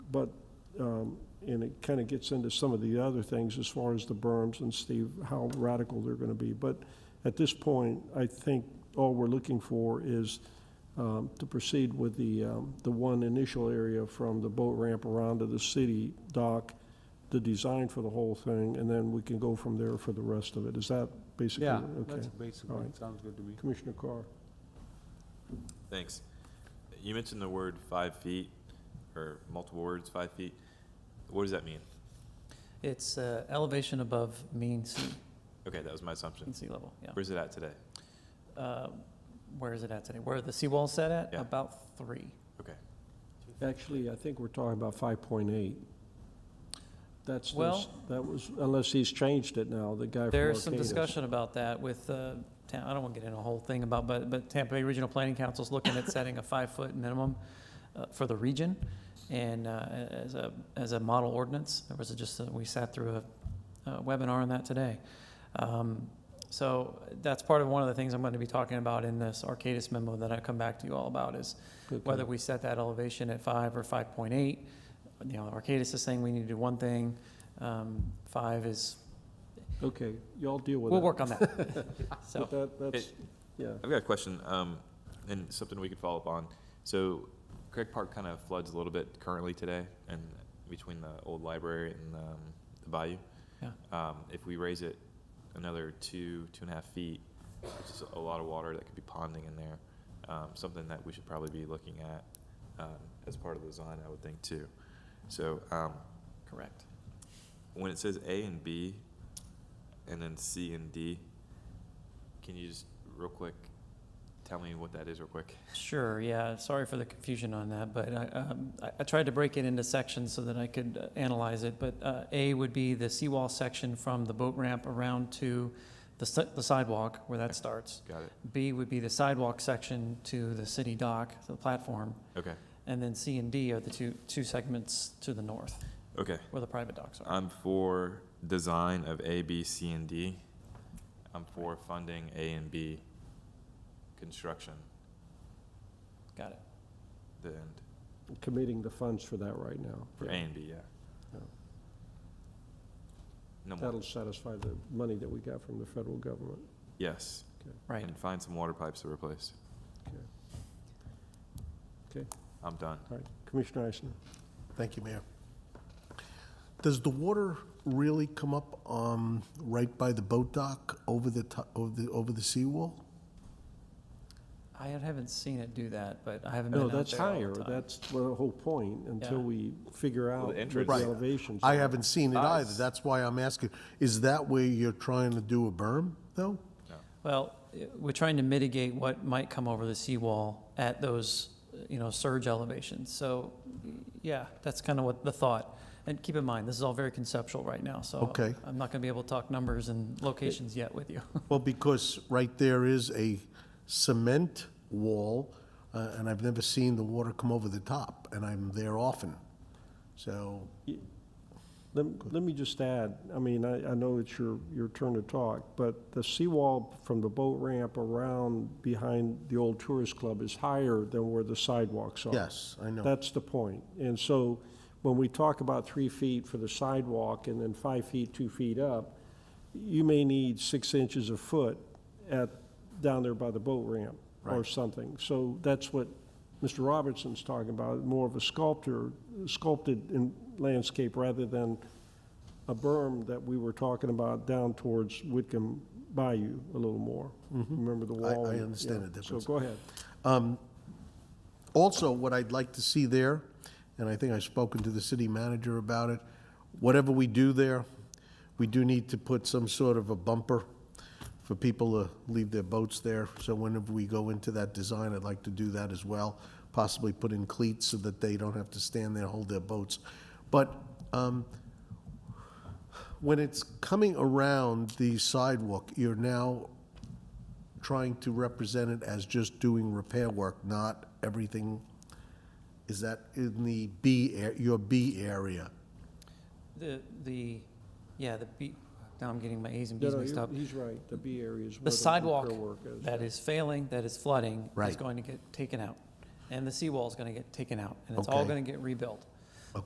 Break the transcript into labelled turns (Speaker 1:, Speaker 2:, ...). Speaker 1: But, um, and it kind of gets into some of the other things as far as the berms and Steve, how radical they're going to be. But at this point, I think all we're looking for is um, to proceed with the, um, the one initial area from the boat ramp around to the city dock, the design for the whole thing, and then we can go from there for the rest of it. Is that basically?
Speaker 2: Yeah,
Speaker 1: Okay.
Speaker 2: that's basically,
Speaker 1: Alright.
Speaker 2: sounds good to me.
Speaker 1: Commissioner Carr?
Speaker 3: Thanks. You mentioned the word five feet, or multiple words, five feet. What does that mean?
Speaker 4: It's uh, elevation above mean sea,
Speaker 3: Okay, that was my assumption.
Speaker 4: mean sea level, yeah.
Speaker 3: Where's it at today?
Speaker 4: Uh, Where is it at today? Where are the seawall's set at?
Speaker 3: Yeah.
Speaker 4: About three.
Speaker 3: Okay.
Speaker 1: Actually, I think we're talking about five point eight. That's,
Speaker 4: Well-
Speaker 1: this- that was, unless he's changed it now, the guy from
Speaker 4: There's some
Speaker 1: Arcadis.
Speaker 4: discussion about that with, uh, Ta- I don't want to get into a whole thing about, but, but Tampa Bay Regional Planning Council's looking at setting a five-foot minimum uh, for the region and uh, as a, as a model ordinance. There was just, a- we sat through a uh, webinar on that today. Um, So that's part of one of the things I'm going to be talking about in this Arcadis memo that I come back to you all about is
Speaker 1: Okay.
Speaker 4: whether we set that elevation at five or five point eight. You know, Arcadis is saying we need to do one thing, um, five is,
Speaker 1: Okay, y'all deal with that.
Speaker 4: we'll work on that. So,
Speaker 1: But that, that's,
Speaker 3: It-
Speaker 1: yeah,
Speaker 3: I've got a question, um, and something we could follow up on. So Craig Park kind of floods a little bit currently today, and between the old library and, um, the bayou.
Speaker 4: Yeah.
Speaker 3: Um, if we raise it another two, two and a half feet, which is a lot of water that could be ponding in there, um, something that we should probably be looking at, um, as part of the design, I would think, too. So, um,
Speaker 4: correct.
Speaker 3: when it says A and B, and then C and D, can you just real quick tell me what that is real quick?
Speaker 4: Sure, yeah, sorry for the confusion on that, but I, um, I- I tried to break it into sections so that I could uh, analyze it. But uh, A would be the seawall section from the boat ramp around to the si- the sidewalk where that starts.
Speaker 3: Got it.
Speaker 4: B would be the sidewalk section to the city dock, the platform.
Speaker 3: Okay.
Speaker 4: And then C and D are the two, two segments to the north
Speaker 3: Okay.
Speaker 4: where the private docks are.
Speaker 3: I'm for design of A, B, C, and D. I'm for funding A and B construction.
Speaker 4: Got it.
Speaker 3: The end
Speaker 1: committing the funds for that right now.
Speaker 3: for A
Speaker 1: Yeah.
Speaker 3: and B, yeah.
Speaker 1: Yeah.
Speaker 3: No more.
Speaker 1: That'll satisfy the money that we got from the federal government.
Speaker 3: Yes.
Speaker 4: Right.
Speaker 3: And find some water pipes to replace.
Speaker 1: Okay. Okay.
Speaker 3: I'm done.
Speaker 1: All right, Commissioner Eisner?
Speaker 5: Thank you, Mayor. Does the water really come up um, right by the boat dock over the, to- over the, over the seawall?
Speaker 4: I haven't seen it do that, but I haven't been
Speaker 1: No,
Speaker 4: out there all
Speaker 1: Oh, that's
Speaker 4: the
Speaker 1: higher,
Speaker 4: time.
Speaker 1: that's the whole point, until
Speaker 4: Yeah.
Speaker 1: we figure out what the
Speaker 3: entrance-
Speaker 5: Right.
Speaker 1: elevations.
Speaker 5: I
Speaker 1: are.
Speaker 5: haven't seen it either, that's why I'm asking. Is that where you're trying to do a berm, though?
Speaker 4: Well, i- we're trying to mitigate what might come over the seawall at those, you know, surge elevations. So, yeah, that's kind of what the thought. And keep in mind, this is all very conceptual right now, so
Speaker 5: Okay.
Speaker 4: I'm not going to be able to talk numbers and locations yet with you.
Speaker 5: Well, because right there is a cement wall, uh, and I've never seen the water come over the top, and I'm there often. So,
Speaker 1: Let, let me just add, I mean, I, I know it's your, your turn to talk, but the seawall from the boat ramp around behind the old tourist club is higher than where the sidewalks are.
Speaker 5: yes, I know.
Speaker 1: That's the point. And so when we talk about three feet for the sidewalk and then five feet, two feet up, you may need six inches a foot at, down there by the boat ramp or
Speaker 5: Right.
Speaker 1: something. So that's what Mr. Robertson's talking about, more of a sculptor, sculpted in landscape rather than a berm that we were talking about down towards Whitcomb Bayou a little more. Remember the
Speaker 5: Mm-hmm. I-
Speaker 1: wall?
Speaker 5: I
Speaker 1: and-
Speaker 5: understand
Speaker 1: yeah.
Speaker 5: the difference.
Speaker 1: So go ahead.
Speaker 5: Also, what I'd like to see there, and I think I've spoken to the city manager about it, whatever we do there, we do need to put some sort of a bumper for people to leave their boats there. So whenever we go into that design, I'd like to do that as well, possibly put in cleats so that they don't have to stand there and hold their boats. But um, when it's coming around the sidewalk, you're now trying to represent it as just doing repair work, not everything, is that in the B, ar- your B area?
Speaker 4: The, the, yeah, the B, now I'm getting my As and
Speaker 1: No,
Speaker 4: Bs
Speaker 1: no,
Speaker 4: mixed
Speaker 1: you're-
Speaker 4: up.
Speaker 1: He's right, the B area is where the
Speaker 4: The sidewalk
Speaker 1: repair work is.
Speaker 4: that is failing, that is flooding, is
Speaker 5: Right.
Speaker 4: going to get taken out. And the seawall is going to get taken out, and it's all
Speaker 5: Okay.
Speaker 4: going to get rebuilt.